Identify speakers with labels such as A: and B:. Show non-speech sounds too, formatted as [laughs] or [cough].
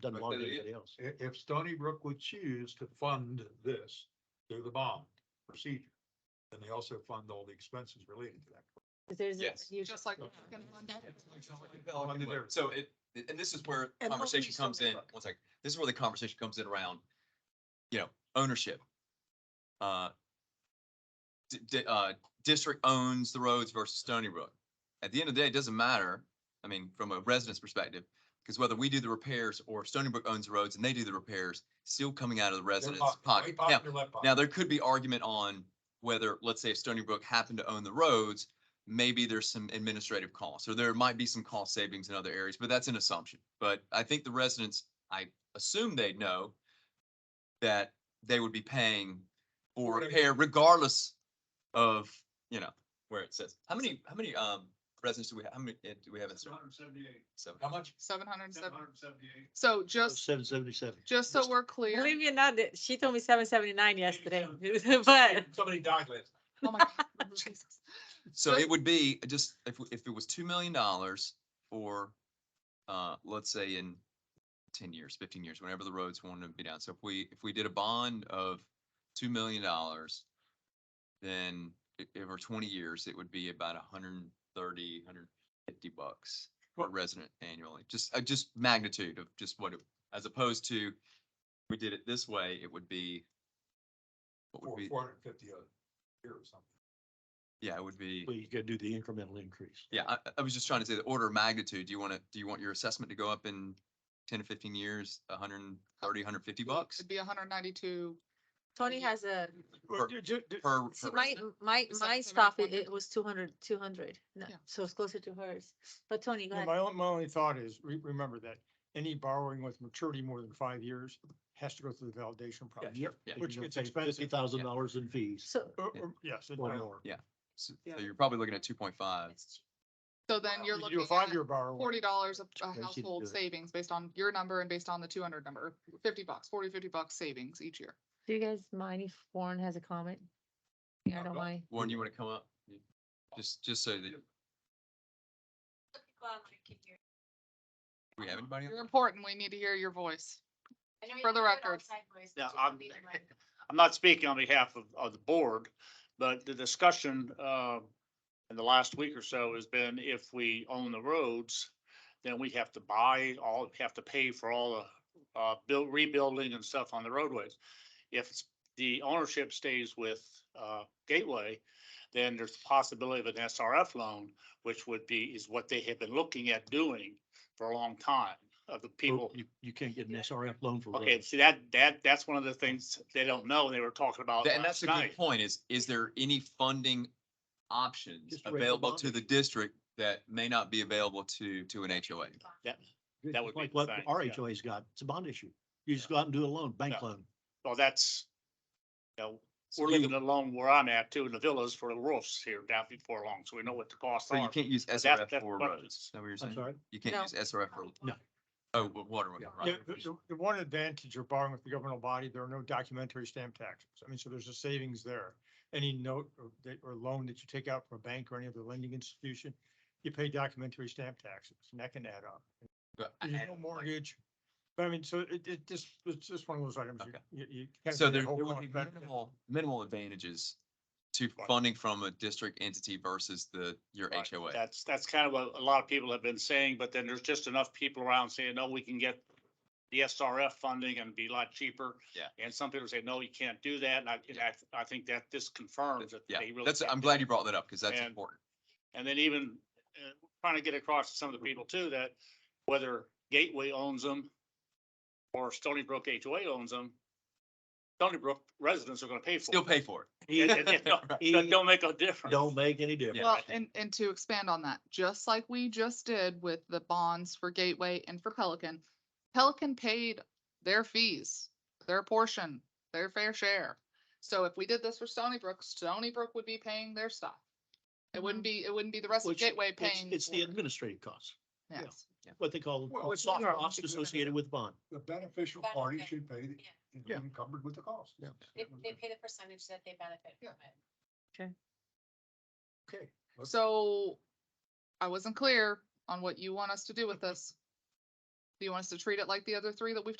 A: Doesn't
B: But
A: belong to
B: there is-
A: anybody else.
C: If, if Stony Brook would choose to fund this through the bond procedure, then they also fund all the expenses related to that.
D: There's.
B: Yes.
D: you-
E: Just like.
C: Funded
B: So it, and this is where
E: And what
B: conversation
E: we
B: comes
E: still
B: in,
E: look.
B: one second, this is where the conversation comes in around, you know, ownership. Uh, di- di- uh, district owns the roads versus Stony Brook. At the end of the day, it doesn't matter, I mean, from a resident's perspective, because whether we do the repairs or Stony Brook owns the roads and they do the repairs, still coming out of the residents' pocket. Now, now, there could be argument on whether, let's say, if Stony Brook happened to own the roads, maybe there's some administrative costs, or there might be some cost savings in other areas, but that's an assumption. But I think the residents, I assume they'd know that they would be paying for
C: Whatever.
B: repair regardless of, you know, where it says. How many, how many, um, residents do we have? How many, uh, do we have in Stony?
C: seventy-eight.
B: Seven.
C: How much?
E: Seven hundred and seven.
C: and seventy-eight.
E: So just,
A: Seven seventy-seven.
E: just so we're clear.
D: Believe it or not, that- she told me seven seventy-nine yesterday, [laughs] but
C: Somebody died last.
E: Oh my God. Jesus.
B: So
E: But-
B: it would be uh, just, if, if it was two million dollars for, uh, let's say in ten years, fifteen years, whenever the roads wanted to be down. So if we, if we did a bond of two million dollars, then i- over twenty years, it would be about a hundred and thirty, hundred and fifty bucks per resident annually. Just, uh, just magnitude of just what, it as opposed to, we did it this way, it would be, what would
C: Four,
B: be,
C: four hundred and fifty a year or something.
B: yeah, it would be.
A: Well, you could do the incremental increase.
B: Yeah, I, I was just trying to say the order of magnitude. Do you want to, do you want your assessment to go up in ten to fifteen years, a hundred and thirty, hundred and fifty bucks?
E: It'd be hundred and ninety-two.
D: Tony has a,
B: Or-
A: Ju- ju- ju-
B: Per,
D: see,
B: per-
D: my, my,
E: Is that
D: my
E: seven
D: stuff, it,
E: hundred?
D: it was two hundred, two hundred.
E: Yeah.
D: So it's closer to hers. But Tony, go
F: Yeah,
D: ahead.
F: my only, my only thought is, re- remember that any borrowing with maturity more than five years has to go through the validation process.
A: Yep.
B: Yeah.
F: Which gets expensive.
A: Fifty thousand dollars in fees
D: So.
F: Or-
B: Yeah.
F: or- Yes. it-
A: or more.
B: so
E: Yeah.
B: so you're probably looking at two point five.
E: So then you're
F: You could do
E: looking
F: a
E: at
F: five-year borrowing.
E: forty dollars of a
A: do
E: household
A: it.
E: savings based on your number and based on the two hundred number, fifty bucks, 40, 50 bucks savings each year.
D: Do you guys mind if Warren has a comment? Yeah, I don't mind.
B: Warren, you want to come up? You- Just, just so that we have anybody. on-
E: You're important. We need to hear your voice. For the record.
G: Yeah, I'm, [laughs] I'm not speaking on behalf of, of the board, but the discussion, uh, in the last week or so has been if we own the roads, then we have to buy all, have to pay for all the, uh, build, rebuilding and stuff on the roadways. If it's- the ownership stays with, uh, Gateway, then there's the possibility of an SRF loan, which would be, is what they have been looking at doing for a long time of the people.
A: You, you can't get an SRF loan for.
G: Okay,
A: roads.
G: see that, that, that's one of the things they don't know, they were talking about
B: Th- And that's
G: last
B: a good
G: night.
B: point is, is there any funding options
A: Just regular
B: available to the
A: bonding.
B: district that may not be available to, to an HOA?
G: that would be
A: Like what
G: the thing,
A: our
G: yeah.
A: HOA's got, it's a bond issue. You just go out and do a loan, bank
G: Yeah.
A: loan.
G: Well, that's, you know,
B: So
G: we're
B: you-
G: living alone where I'm at too, in the villas for the roofs here down before long, so we know what the costs
B: So you
G: are.
B: can't use
G: that's-
B: SRF
G: that's
B: for
G: what-
B: roads. Is that what you're
A: I'm
B: saying?
A: sorry.
B: You can't
D: No.
B: use SRF for.
A: No.
B: Oh, wa- water,
A: Yeah.
F: Yeah,
B: right.
F: the, the- the one advantage of borrowing with the governmental body, there are no documentary stamp taxes. I mean, so there's a savings there. Any note or, that- or loan that you take out from a bank or any other lending institution, you pay documentary stamp taxes and that can add up.
B: But I-
F: There's no mortgage. But I mean, so it, it just, it's just one of those items. you-
B: Okay.
F: You, you. kinda
B: So
F: get
B: there,
F: whole
B: there would
F: cost
B: be
F: benefit.
B: minimal, minimal advantages to
G: Right.
B: funding from a district entity versus the, your
G: Right,
B: HOA.
G: That's, that's kind of what a lot of people have been saying, but then there's just enough people around saying, no, we can get the SRF funding and be a lot cheaper.
B: Yeah.
G: And some people say, no, you can't do that, and I, and I, I think that this confirms that
B: Yeah,
G: they really.
B: that's,
G: can't
B: I'm
G: do
B: glad
G: that.
B: you brought that up because that's
G: And-
B: important.
G: And then even uh, trying to get across to some of the people too, that whether Gateway owns them or Stony Brook HOA owns them, Stony Brook residents are gonna pay for
B: Still
G: it.
B: pay for
G: It- it- [laughs]
B: [laughs]
G: it don't-
B: it.
G: it Don't make a difference.
A: Don't make any difference.
E: Well, and, and to expand on that, just like we just did with the bonds for Gateway and for Pelican, Pelican paid their fees, their portion, their fair share. So if we did this for Stony Brook, Stony Brook would be paying their stuff. It wouldn't be, it wouldn't be the rest
A: Mm-hmm.
E: of
A: Which-
E: Gateway
A: It's-
E: paying.
A: It's the
E: for it.
A: administrative costs, yeah.
E: Yes.
A: what they call
C: Well, it's
A: soft
C: not-
A: costs associated with bond.
C: The beneficial party
H: Benefit.
C: should pay the,
A: Yeah.
C: encumbered with the cost.
A: Yeah.
H: They, they pay the percentage that they benefit
C: Yeah.
H: from it.
C: Okay.
E: So I wasn't clear on what you want us to do with this. Do you want us to treat it like the other three that we've